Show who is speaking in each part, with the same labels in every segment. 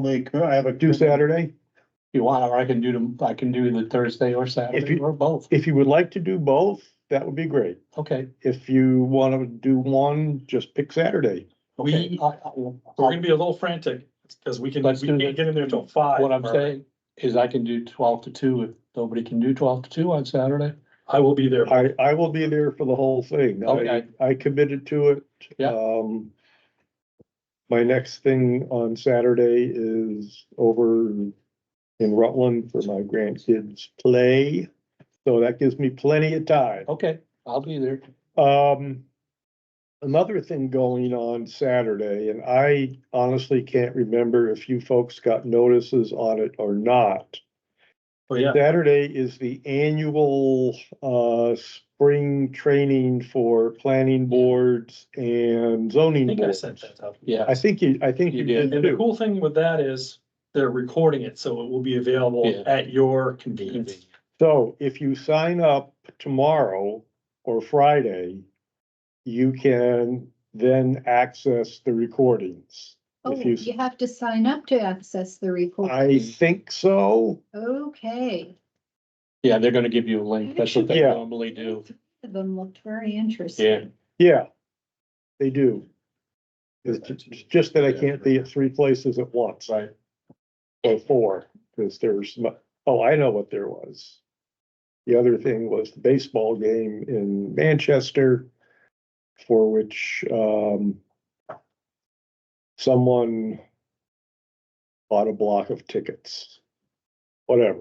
Speaker 1: They could, I have a.
Speaker 2: do Saturday.
Speaker 3: You want, or I can do them, I can do the Thursday or
Speaker 2: If
Speaker 3: Saturday
Speaker 2: you-
Speaker 3: or both.
Speaker 2: If you would like to do both, that would be great.
Speaker 3: Okay.
Speaker 2: If you want to do one, just pick Saturday.
Speaker 3: okay.
Speaker 4: We-
Speaker 3: I- I-
Speaker 4: We're gonna be a little frantic, because we can, we
Speaker 3: Let's do
Speaker 4: can't
Speaker 3: that.
Speaker 4: get in there till five.
Speaker 3: What I'm saying is I can do twelve to two if nobody can do twelve to two on Saturday.
Speaker 4: I will be there.
Speaker 2: I, I will be there for the whole thing. I,
Speaker 3: Okay.
Speaker 2: I committed to it.
Speaker 3: Yeah.
Speaker 2: Um, my next thing on Saturday is over in Rutland for my grandkids' play. So that gives me plenty of time.
Speaker 3: Okay, I'll be there.
Speaker 2: Um, another thing going on Saturday, and I honestly can't remember if you folks got notices on it or not.
Speaker 4: Oh, yeah.
Speaker 2: Saturday is the annual, uh, spring training for planning boards and
Speaker 4: I
Speaker 2: zoning
Speaker 4: think I
Speaker 2: boards.
Speaker 4: sent that out.
Speaker 3: Yeah.
Speaker 2: I think you, I think
Speaker 3: You
Speaker 2: you
Speaker 3: did.
Speaker 2: did
Speaker 4: And the
Speaker 2: too.
Speaker 4: cool thing with that is they're recording it, so it will be available
Speaker 3: Yeah.
Speaker 4: at your convenience.
Speaker 2: So if you sign up tomorrow or Friday, you can then access the recordings.
Speaker 5: Oh,
Speaker 2: If you-
Speaker 5: you have to sign up to access the report.
Speaker 2: I think so.
Speaker 5: Okay.
Speaker 3: Yeah, they're gonna give you a link. That's what they
Speaker 2: Yeah.
Speaker 3: normally do.
Speaker 5: Three of Them looked very interesting.
Speaker 2: Yeah, they do. It's ju- it's just that I can't be at three places at once,
Speaker 3: Right.
Speaker 2: or four, because there's, mu- oh, I know what there was. The other thing was the baseball game in Manchester, for which, um, someone bought a block of tickets, whatever.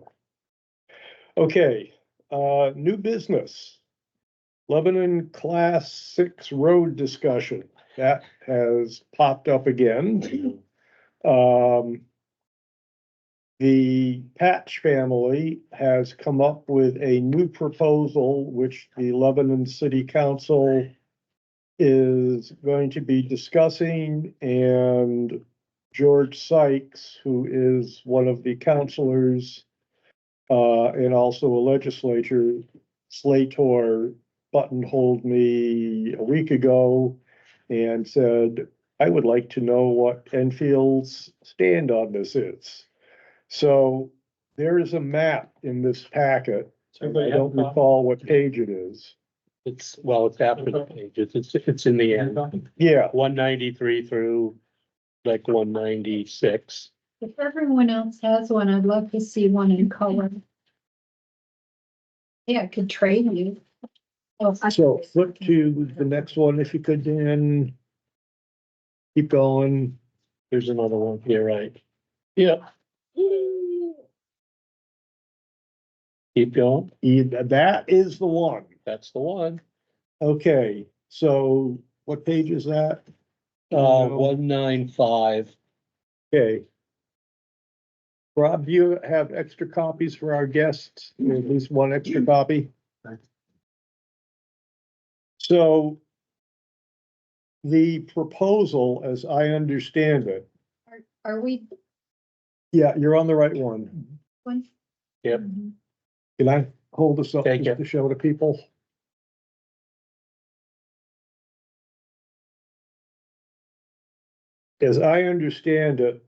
Speaker 2: Okay, uh, new business. Lebanon Class Six Road discussion, that has popped up again. Um. The Patch family has come up with a new proposal, which the Lebanon City Council is going to be discussing, and George Sykes, who is one of the counselors uh, and also a legislature, Slator buttonholed me a week ago and said, I would like to know what Enfield's stand on this is. So there is a map in this packet.
Speaker 4: So
Speaker 2: I
Speaker 4: everybody have
Speaker 2: don't
Speaker 4: a copy?
Speaker 2: recall what page it is.
Speaker 6: It's, well, it's after the pages, it's, it's in the
Speaker 4: Have a
Speaker 6: end,
Speaker 4: copy?
Speaker 2: Yeah,
Speaker 6: one ninety-three through like one ninety-six.
Speaker 5: If everyone else has one, I'd love to see one in color. Yeah, I could trade you. Oh, I-
Speaker 2: so flip to the next one if you could, Dan. Keep going.
Speaker 6: There's another one here, right?
Speaker 3: Yeah.
Speaker 6: Keep going,
Speaker 2: E- That is the one.
Speaker 6: that's the one.
Speaker 2: Okay, so what page is that?
Speaker 6: Uh, one nine five,
Speaker 2: Okay. Rob, do you have extra copies for our guests? At least one extra copy? So the proposal, as I understand it,
Speaker 5: Are we?
Speaker 2: yeah, you're on the right one.
Speaker 5: one?
Speaker 6: Yep.
Speaker 5: Mhm.
Speaker 2: Can I hold this up
Speaker 6: Take
Speaker 2: just
Speaker 6: it.
Speaker 2: to show to people? As I understand it,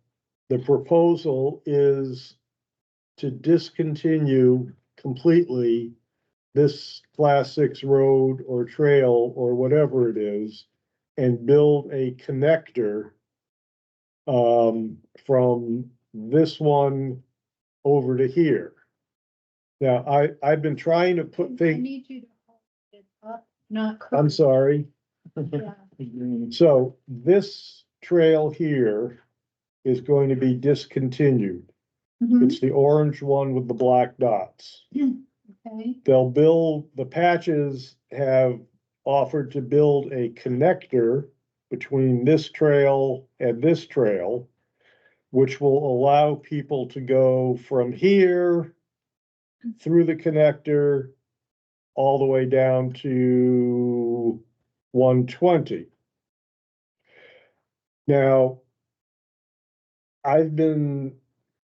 Speaker 2: the proposal is to discontinue completely this class six road or trail or whatever it is and build a connector um, from this one over to here. Now, I, I've been trying to put
Speaker 5: I
Speaker 2: things,
Speaker 5: need you to hold it up, not.
Speaker 2: I'm sorry.
Speaker 5: Yeah.
Speaker 2: So this trail here is going to be discontinued.
Speaker 5: Mhm,
Speaker 2: It's the orange one with the black dots.
Speaker 5: Okay,
Speaker 2: They'll build, the patches have offered to build a connector between this trail and this trail, which will allow people to go from here through the connector all the way down to one twenty. Now, I've been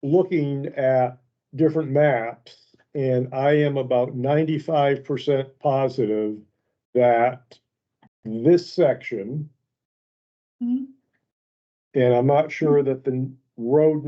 Speaker 2: looking at different maps and I am about ninety-five percent positive that this section,
Speaker 5: mhm.
Speaker 2: and I'm not sure that the road